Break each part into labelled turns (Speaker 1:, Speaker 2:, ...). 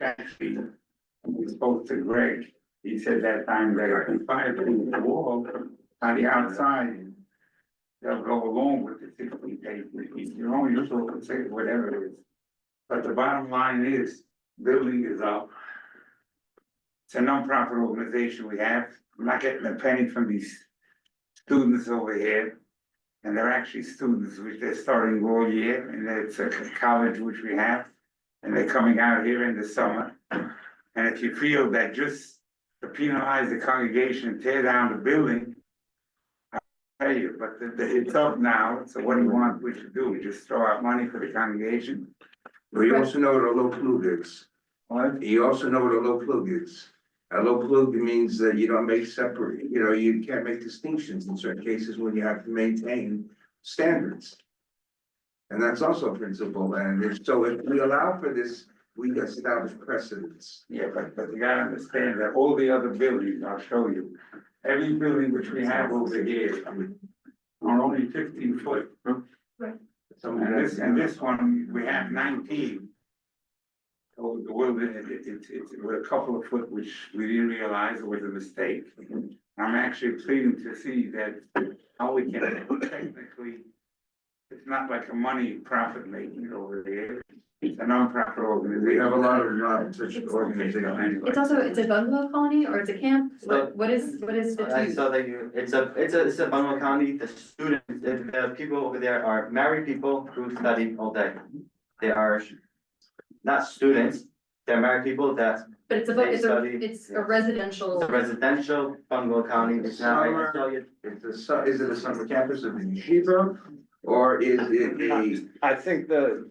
Speaker 1: actually, we spoke to Greg, he said that time that I can find through the wall on the outside. They'll go along with the sixty days, you know, you sort of say whatever it is. But the bottom line is, building is up. It's a nonprofit organization we have, I'm not getting a penny from these students over here. And they're actually students, which they're starting all year, and it's a c- college which we have. And they're coming out here in the summer. And if you feel that just to penalize the congregation, and tear down the building. I Tell you, but the- the- it's up now, so what do you want we should do? We just throw out money for the congregation?
Speaker 2: But you also know what a low plug is.
Speaker 1: What?
Speaker 2: You also know what a low plug is. A low plug means that you don't make separate, you know, you can't make distinctions in certain cases when you have to maintain standards. And that's also a principle, and if, so if we allow for this, we establish precedents.
Speaker 1: Yeah, but, but you gotta understand that all the other buildings, I'll show you, every building which we have over here are only fifteen foot. And this, and this one, we have nineteen. So the world, it, it, it- it's, we're a couple of foot, which we didn't realize was a mistake. I'm actually pleading to see that how we can technically, it's not like a money profit making over there. It's a nonprofit organization.
Speaker 2: We have a lot of non such organizations.
Speaker 1: Anyway.
Speaker 3: It's also, it's a bungalow colony or it's a camp,
Speaker 4: So-
Speaker 3: what, what is, what is the
Speaker 4: I
Speaker 3: use?
Speaker 4: saw that you, it's a, it's a, it's a Bangor County, the students, the, the people over there are married people who study all day. They are not students, they're married people that
Speaker 3: But it's a, bu- it's a,
Speaker 4: study,
Speaker 3: it's a
Speaker 4: yeah.
Speaker 3: residential,
Speaker 4: it's a residential Bangor County, it's not like I tell you.
Speaker 2: It's a, su- is it a summer campus of the yeshiva, or is it a?
Speaker 5: I think the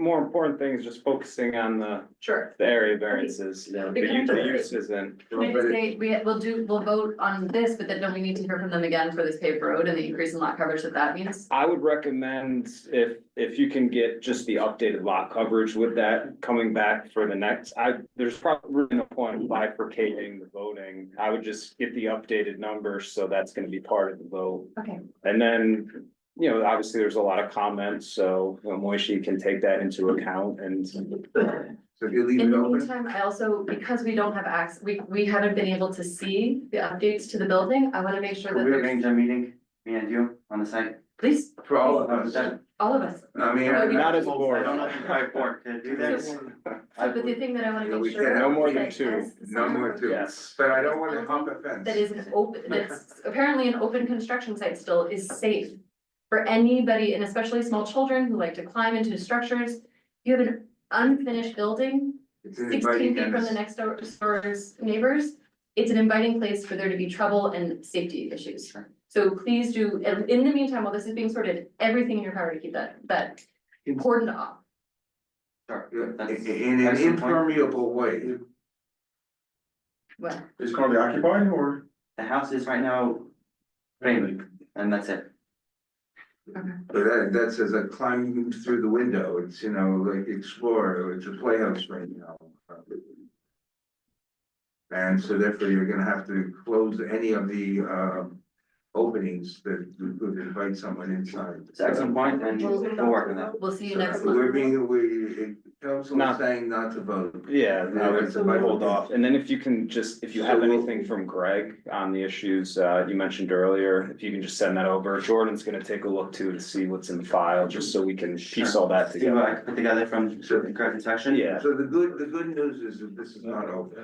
Speaker 5: more important thing is just focusing on the,
Speaker 3: sure.
Speaker 5: the area variances, the u- the uses and.
Speaker 3: Can I just say, we, we'll do, we'll vote on this, but then don't we need to hear from them again for this paved road and the increase in lot coverage that that means?
Speaker 5: I would recommend if, if you can get just the updated lot coverage with that coming back for the next, I, there's probably no point in bifurcating the voting. I would just get the updated numbers, so that's gonna be part of the vote.
Speaker 3: Okay,
Speaker 5: And then, you know, obviously, there's a lot of comments, so uh, Moishi can take that into account and
Speaker 2: So if you leave
Speaker 3: in
Speaker 2: it
Speaker 3: the
Speaker 2: open,
Speaker 3: meantime, I also, because we don't have access, we, we haven't been able to see the updates to the building, I wanna make sure
Speaker 4: Could
Speaker 3: that
Speaker 4: we
Speaker 3: there's,
Speaker 4: arrange a meeting, me and you on the site?
Speaker 3: please,
Speaker 2: for all of us,
Speaker 4: I
Speaker 3: all of us.
Speaker 2: I mean.
Speaker 3: Not
Speaker 5: not as a board.
Speaker 4: don't know if I work to do this. I
Speaker 3: So, but the
Speaker 4: would-
Speaker 3: thing that I wanna
Speaker 2: Yeah, we
Speaker 3: make sure.
Speaker 2: can't have
Speaker 3: is
Speaker 5: more than
Speaker 3: that
Speaker 5: two.
Speaker 3: as the
Speaker 2: No more
Speaker 3: summer
Speaker 2: two.
Speaker 5: Yes.
Speaker 2: But I don't wanna hump a fence.
Speaker 3: that is an open, that's apparently an open construction site still is safe. For anybody, and especially small children who like to climb into structures, you have an unfinished building,
Speaker 2: It's an
Speaker 3: sixteen
Speaker 2: inviting
Speaker 3: feet from the
Speaker 2: menace.
Speaker 3: next door door's neighbors. It's an inviting place for there to be trouble and safety issues.
Speaker 4: Sure.
Speaker 3: So please do, and in the meantime, while this is being sorted, everything in your power to keep that, that cordoned off.
Speaker 4: Sure,
Speaker 2: Yeah, i- i-
Speaker 4: that's-
Speaker 2: In an
Speaker 4: Excellent point.
Speaker 2: impermeable way.
Speaker 3: Well,
Speaker 2: It's gonna be occupied or?
Speaker 4: The house is right now framed, and that's it.
Speaker 2: But that, that says a climbing through the window, it's, you know, like explore, it's a playhouse right now. And so therefore you're gonna have to close any of the, um, openings that would invite someone inside.
Speaker 4: It's an excellent point, and we'll work on that.
Speaker 3: we'll see you
Speaker 2: So
Speaker 3: next
Speaker 2: We're
Speaker 3: month.
Speaker 2: being, we, council is
Speaker 5: Not-
Speaker 2: saying not to vote.
Speaker 5: Yeah, I would
Speaker 2: Yeah,
Speaker 5: I'd hold off. And then if you can just, if you have
Speaker 2: So we'll-
Speaker 5: anything from Greg on the issues uh you mentioned earlier, if you can just send that over. Jordan's gonna take a look too to see what's in the file, just so we can piece all that
Speaker 4: See what I
Speaker 5: together.
Speaker 4: can put together from
Speaker 2: Sure.
Speaker 4: the correct section.
Speaker 5: Yeah,
Speaker 2: So the good, the good news is that this is not over.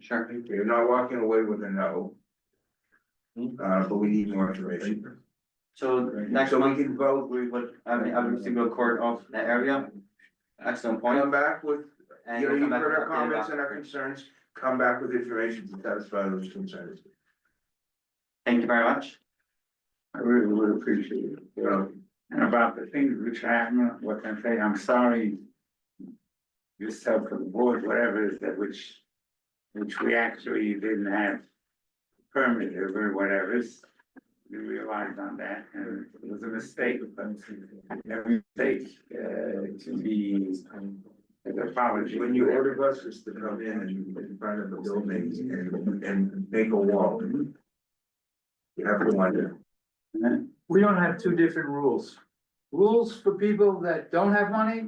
Speaker 4: Sure.
Speaker 2: You're not walking away with a no. Uh, but we need more information.
Speaker 4: So next
Speaker 2: So we
Speaker 4: month,
Speaker 2: can vote.
Speaker 4: we would, I mean, I would see a court of the area. Excellent point.
Speaker 2: Come back with,
Speaker 4: And
Speaker 2: you know,
Speaker 4: we'll
Speaker 2: you
Speaker 4: come back
Speaker 2: heard our
Speaker 4: with an update
Speaker 2: comments
Speaker 4: about-
Speaker 2: and our concerns, come back with information to satisfy those concerns.
Speaker 4: Thank you very much.
Speaker 1: I really would appreciate it.
Speaker 2: You know,
Speaker 1: And about the things which happen, what can I say, I'm sorry. Yourself for the board, whatever is that which, which we actually didn't have permit over, whatever is. We realized on that, and it was a mistake, but every mistake, uh, to be an apology.
Speaker 2: when you order buses to come in and in front of the buildings and, and make a wall. You have to wonder.
Speaker 6: we don't have two different rules. Rules for people that don't have money